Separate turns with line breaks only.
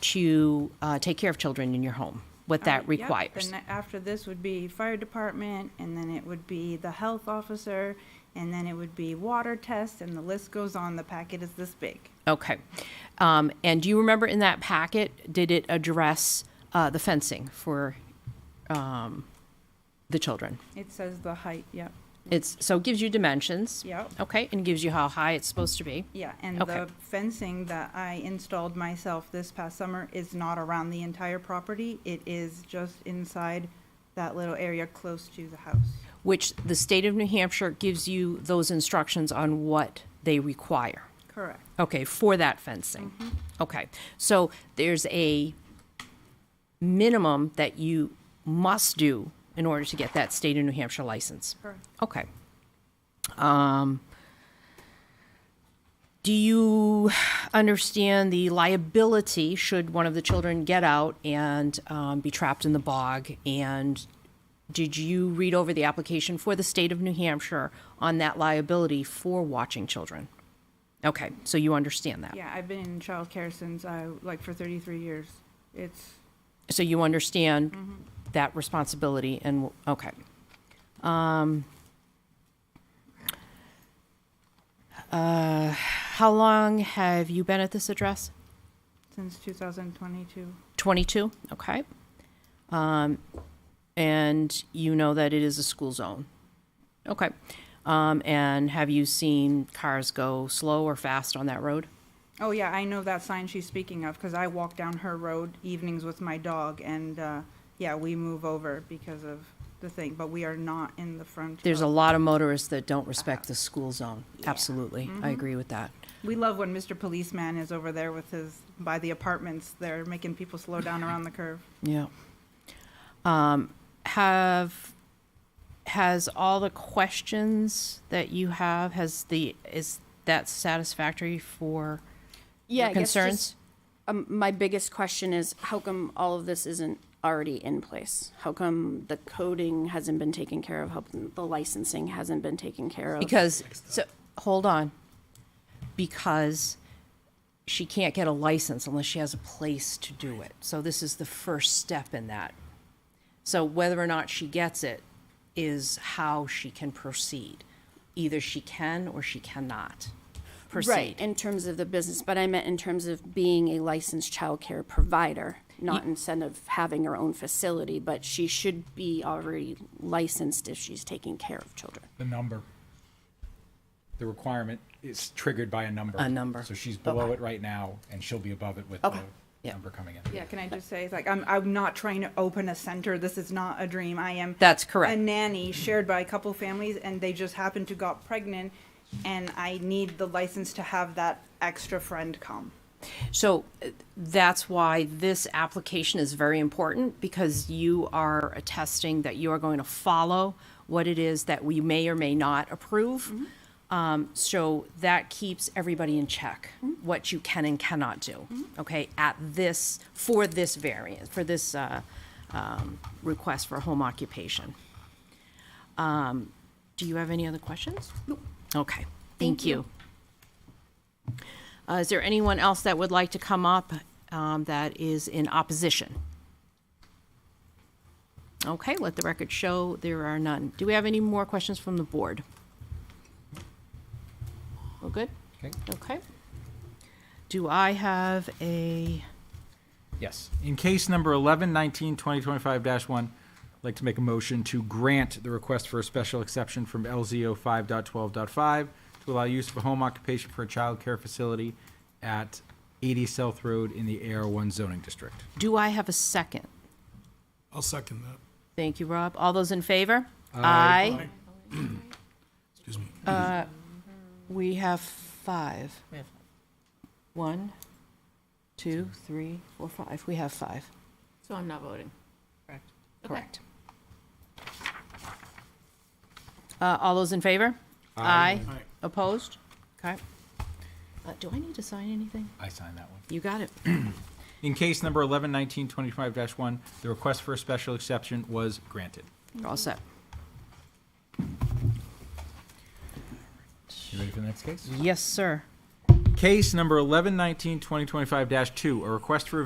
to uh, take care of children in your home, what that
Oh, Yep,
requires.
And after this would be fire department, and then it would be the health officer, and then it would be water test, and the list goes on. The packet is this big.
Okay. Um, And do you remember in that packet, did it address uh, the fencing for um, the children?
It says the height, yep,
It's, so it gives you dimensions.
Yep.
Okay, and gives you how high it's supposed to be.
yeah. And
Okay.
the fencing that I installed myself this past summer is not around the entire property. It is just inside that little area close to the house.
Which the state of New Hampshire gives you those instructions on what they require.
Correct.
Okay, for that fencing. Okay, so there's a minimum that you must do in order to get that state of New Hampshire license.
Correct.
Okay. Um, do you understand the liability should one of the children get out and um, be trapped in the bog? And did you read over the application for the state of New Hampshire on that liability for watching children? Okay, so you understand that.
Yeah, I've been in childcare since I, like, for 33 years. It's,
So you understand that responsibility and, okay. Um, uh, How long have you been at this address?
since 2022.
22, okay. Um, And you know that it is a school zone? Okay. Um, And have you seen cars go slow or fast on that road?
Oh yeah, I know that sign she's speaking of because I walk down her road evenings with my dog, and uh, yeah, we move over because of the thing. But we are not in the front.
There's a
of-
lot of motorists that don't respect the school zone. Absolutely, I agree with that.
We love when Mr. Policeman is over there with his by the apartments. They're making people slow down around the curve.
Yeah. Um, have, has all the questions that you have, has the, is that satisfactory for
Yeah,
your
I guess just-
concerns?
Um, my biggest question is how come all of this isn't already in place? How come the coding hasn't been taken care of? How come the licensing hasn't been taken care of?
Because, so, hold on. Because she can't get a license unless she has a place to do it. So this is the first step in that. So whether or not she gets it is how she can proceed. Either she can or she cannot proceed.
right in terms of the business, but I meant in terms of being a licensed childcare provider, not instead of having her own facility. But she should be already licensed if she's taking care of children.
The number. The requirement is triggered by a number.
A number.
So she's below it right now, and she'll be above it with the number coming in.
Yeah, can I just say, it's like, I'm, I'm not trying to open a center. This is not a dream. I am.
That's correct.
A nanny shared by a couple families and they just happened to got pregnant and I need the license to have that extra friend come.
So uh, that's why this application is very important because you are attesting that you are going to follow what it is that we may or may not approve. Um, so that keeps everybody in check, what you can and cannot do, okay, at this, for this variant, for this, uh, um, request for home occupation. Um, do you have any other questions? Nope. Okay, thank you. Uh, Is there anyone else that would like to come up um, that is in opposition? Okay, let the record show there are none. Do we have any more questions from the board? We're good?
Okay.
Okay. Do I have a,
Yes. In case number 11, 19, 20, 25-1, I'd like to make a motion to grant the request for a special exception from LZO 5.12.5 to allow use of a home occupation for a child care facility at 80 South Road in the AR1 zoning district.
do I have a second?
I'll second that.
Thank you, Rob. All those in favor? Aye. Uh,
Excuse me.
We have five. One, two, three, four, five. We have five.
So I'm not voting. Correct.
Correct. Uh, All those in favor? Aye.
Aye.
Opposed? Okay. Uh, Do I need to sign anything?
I signed that one.
You got it.
In case number 11, 19, 25-1, the request for a special exception was granted.
You're all set.
You ready for the next case?
Yes, sir.
Case number 11, 19, 2025-2, a request for a